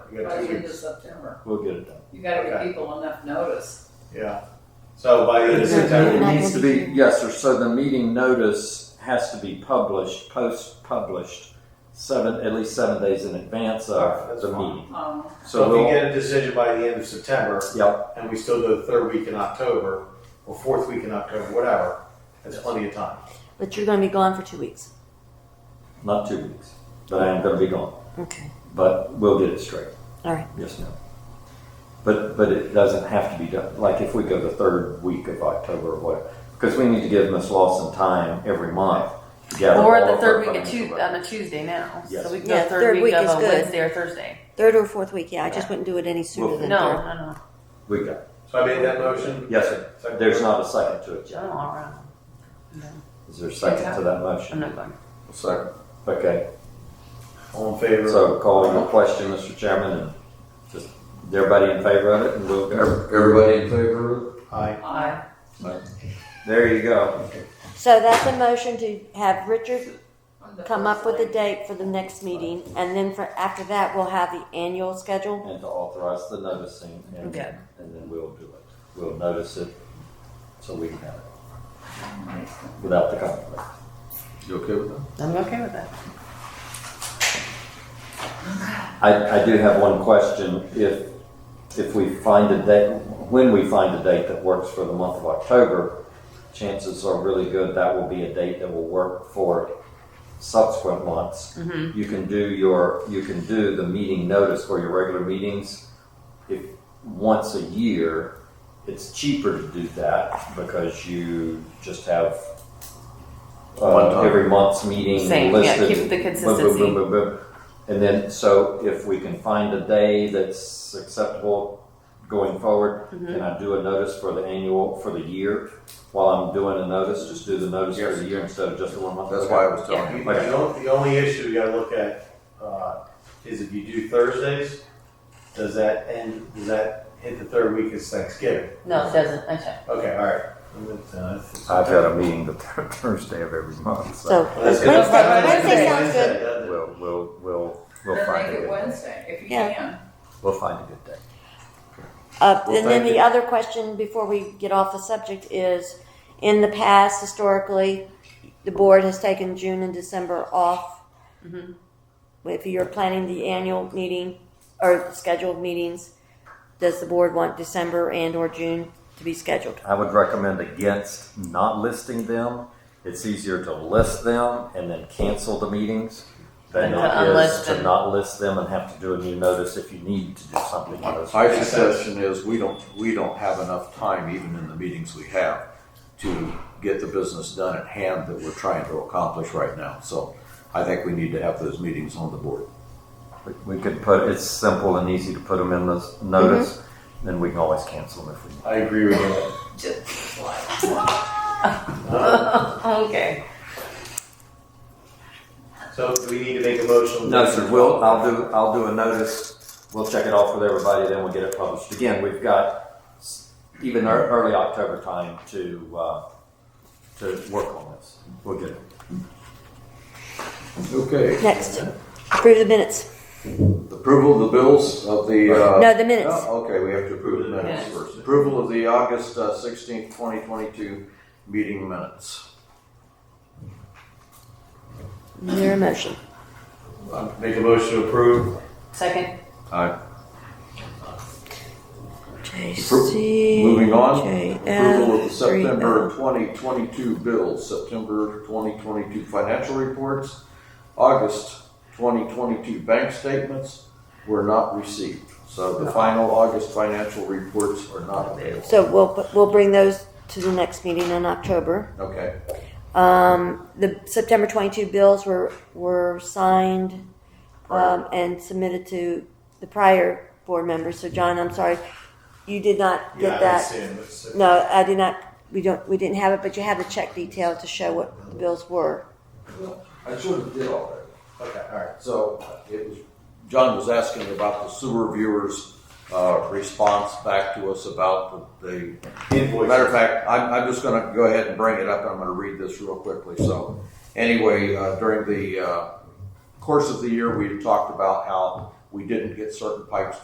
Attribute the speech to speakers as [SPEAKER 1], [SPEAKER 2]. [SPEAKER 1] We
[SPEAKER 2] by
[SPEAKER 1] have two
[SPEAKER 2] the end of
[SPEAKER 1] weeks.
[SPEAKER 2] September.
[SPEAKER 3] We'll get it done.
[SPEAKER 2] You gotta give
[SPEAKER 1] Okay.
[SPEAKER 2] people enough notice.
[SPEAKER 1] Yeah. So by the end of
[SPEAKER 3] It
[SPEAKER 1] September,
[SPEAKER 3] needs to be, yes, sir, so the meeting notice has to be published, post-published, seven, at least seven days in advance of
[SPEAKER 1] That's
[SPEAKER 3] the
[SPEAKER 1] fine.
[SPEAKER 3] meeting.
[SPEAKER 2] Um,
[SPEAKER 3] So
[SPEAKER 1] so if we
[SPEAKER 3] we'll,
[SPEAKER 1] get a decision by the end of September,
[SPEAKER 3] yeah,
[SPEAKER 1] and we still do the third week in October, or fourth week in October, whatever, that's plenty of time.
[SPEAKER 4] But you're going to be gone for two weeks.
[SPEAKER 3] not two weeks, but I am gonna be gone,
[SPEAKER 4] Okay.
[SPEAKER 3] but we'll get it straight.
[SPEAKER 4] All right.
[SPEAKER 3] Yes, ma'am. But, but it doesn't have to be done, like if we go the third week of October or whatever, because we need to give Ms. Lawson time every month to gather all
[SPEAKER 5] Well, we're
[SPEAKER 3] of
[SPEAKER 5] at
[SPEAKER 3] her
[SPEAKER 5] the third week of um,
[SPEAKER 3] financial
[SPEAKER 5] Tu-
[SPEAKER 3] records.
[SPEAKER 5] on a Tuesday now,
[SPEAKER 3] Yes.
[SPEAKER 5] so we can
[SPEAKER 4] Yeah,
[SPEAKER 5] go third week of
[SPEAKER 4] is
[SPEAKER 5] a
[SPEAKER 4] good.
[SPEAKER 5] Wednesday or Thursday.
[SPEAKER 4] Third or fourth week, yeah. I just
[SPEAKER 3] Yeah.
[SPEAKER 4] wouldn't do it any sooner
[SPEAKER 3] Well,
[SPEAKER 4] than
[SPEAKER 5] No,
[SPEAKER 4] third.
[SPEAKER 5] no, no,
[SPEAKER 3] We got,
[SPEAKER 1] So I made that motion.
[SPEAKER 3] yes, sir,
[SPEAKER 1] Second.
[SPEAKER 3] there's not a second to it,
[SPEAKER 5] I'm
[SPEAKER 3] John.
[SPEAKER 5] all right.
[SPEAKER 3] Is there a second to that
[SPEAKER 5] I'm
[SPEAKER 3] motion?
[SPEAKER 5] not going.
[SPEAKER 3] Second. Okay,
[SPEAKER 1] All in favor?
[SPEAKER 3] so calling the question, Mr. Chairman, and just, is everybody in favor of it, and we'll go.
[SPEAKER 6] Ev- Everybody in favor of it?
[SPEAKER 1] Aye.
[SPEAKER 2] I,
[SPEAKER 3] There you go.
[SPEAKER 4] So that's a motion to have Richard
[SPEAKER 2] I'm the
[SPEAKER 4] come
[SPEAKER 2] first
[SPEAKER 4] up with a
[SPEAKER 2] lady.
[SPEAKER 4] date for the next meeting, and then for after that, we'll have the annual schedule.
[SPEAKER 3] And to authorize the noticing, and,
[SPEAKER 5] Okay.
[SPEAKER 3] and then we'll do it. We'll notice it, so we can have it. Without the conflict.
[SPEAKER 6] You okay with that?
[SPEAKER 5] I'm okay with that.
[SPEAKER 3] I, I do have one question. If, if we find a date, when we find a date that works for the month of October, chances are really good that will be a date that will work for subsequent months. You can do your, you can do the meeting notice for your regular meetings if, once a year. It's cheaper to do that because you just have
[SPEAKER 6] One
[SPEAKER 3] uh,
[SPEAKER 6] time.
[SPEAKER 3] every month's meeting
[SPEAKER 5] Same, yeah, keep the
[SPEAKER 3] listed. Boom, boom, boom,
[SPEAKER 5] consistency.
[SPEAKER 3] boom, boom. And then, so if we can find a day that's acceptable going forward,
[SPEAKER 5] Mm-hmm.
[SPEAKER 3] can I do a notice for the annual, for the year? While I'm doing a notice, just do the notice for
[SPEAKER 6] Yes.
[SPEAKER 3] the year instead of just the one month?
[SPEAKER 6] That's why I was telling
[SPEAKER 1] The,
[SPEAKER 6] you.
[SPEAKER 1] the only, the only issue you gotta look at, uh, is if you do Thursdays, does that end, does that hit the third week is Thanksgiving?
[SPEAKER 5] No, it doesn't, okay.
[SPEAKER 1] Okay, all right. And then, uh, it's-
[SPEAKER 7] I've got a meeting the third Thursday of every month, so
[SPEAKER 4] So
[SPEAKER 1] Well, that's good.
[SPEAKER 4] Wednesday-
[SPEAKER 1] That's
[SPEAKER 2] Wednesday
[SPEAKER 1] good.
[SPEAKER 4] sounds good.
[SPEAKER 1] doesn't it?
[SPEAKER 7] we'll, we'll, we'll, we'll
[SPEAKER 2] Then
[SPEAKER 7] find a
[SPEAKER 2] make it
[SPEAKER 7] good,
[SPEAKER 2] Wednesday, if you
[SPEAKER 4] Yeah.
[SPEAKER 2] can.
[SPEAKER 7] we'll find a good day.
[SPEAKER 4] Uh,
[SPEAKER 6] Well,
[SPEAKER 4] and then
[SPEAKER 6] thank
[SPEAKER 4] the
[SPEAKER 6] you.
[SPEAKER 4] other question before we get off the subject is, in the past, historically, the board has taken June and December off. If you're planning the annual meeting or scheduled meetings, does the board want December and or June to be scheduled?
[SPEAKER 3] I would recommend against not listing them. It's easier to list them and then cancel the meetings than
[SPEAKER 5] Than to
[SPEAKER 3] it is
[SPEAKER 5] unlist
[SPEAKER 3] to
[SPEAKER 5] them.
[SPEAKER 3] not list them and have to do a new notice if you need to do something. else.
[SPEAKER 6] My suggestion is, we don't, we don't have enough time, even in the meetings we have, to get the business done at hand that we're trying to accomplish right now. So I think we need to have those meetings on the board.
[SPEAKER 3] We- We could put, it's simple and easy to put them in the notice,
[SPEAKER 5] Mm-hmm.
[SPEAKER 3] then we can always cancel them if we need.
[SPEAKER 1] I agree with you.
[SPEAKER 2] Just like,
[SPEAKER 1] Uh,
[SPEAKER 5] Okay.
[SPEAKER 1] So do we need to make a motion?
[SPEAKER 3] No, sir, we'll, I'll do, I'll do a notice, we'll check it off with everybody, then we'll get it published. Again, we've got s- even ear- early October time to, uh, to work on this. We'll get it.
[SPEAKER 6] Okay.
[SPEAKER 4] Next, approve the minutes.
[SPEAKER 6] Approval of the bills of the, uh.
[SPEAKER 4] No, the minutes.
[SPEAKER 6] Oh, Okay, we have to approve the minutes
[SPEAKER 5] Minutes.
[SPEAKER 6] first. Approval of the August uh, sixteenth, twenty twenty-two meeting minutes.
[SPEAKER 4] Is There a motion.
[SPEAKER 1] Uh, Make a motion to approve.
[SPEAKER 5] Second,
[SPEAKER 6] Aye.
[SPEAKER 4] JC.
[SPEAKER 6] Moving on,
[SPEAKER 4] JF,
[SPEAKER 6] approval of the
[SPEAKER 4] 3L.
[SPEAKER 6] September 2022 bills, September 2022 financial reports, August 2022 bank statements were not received. So the final August financial reports are not available.
[SPEAKER 4] So we'll, we'll bring those to the next meeting in October.
[SPEAKER 6] Okay,
[SPEAKER 4] Um, the September twenty-two bills were, were signed, um, and submitted to the prior board members, so John, I'm sorry, you did not
[SPEAKER 1] Yeah, I
[SPEAKER 4] get
[SPEAKER 1] didn't
[SPEAKER 4] that.
[SPEAKER 1] see it, but it's-
[SPEAKER 4] No, I did not, we don't, we didn't have it, but you have the check detail to show what the bills were.
[SPEAKER 6] I sort of did all that.
[SPEAKER 1] Okay, all right.
[SPEAKER 6] So uh, it was, John was asking about the sewer viewers' uh, response back to us about the
[SPEAKER 1] Invoice.
[SPEAKER 6] Matter of fact, I'm, I'm just gonna go ahead and bring it up, I'm gonna read this real quickly, so. Anyway, uh, during the, uh, course of the year, we talked about how we didn't get certain pipes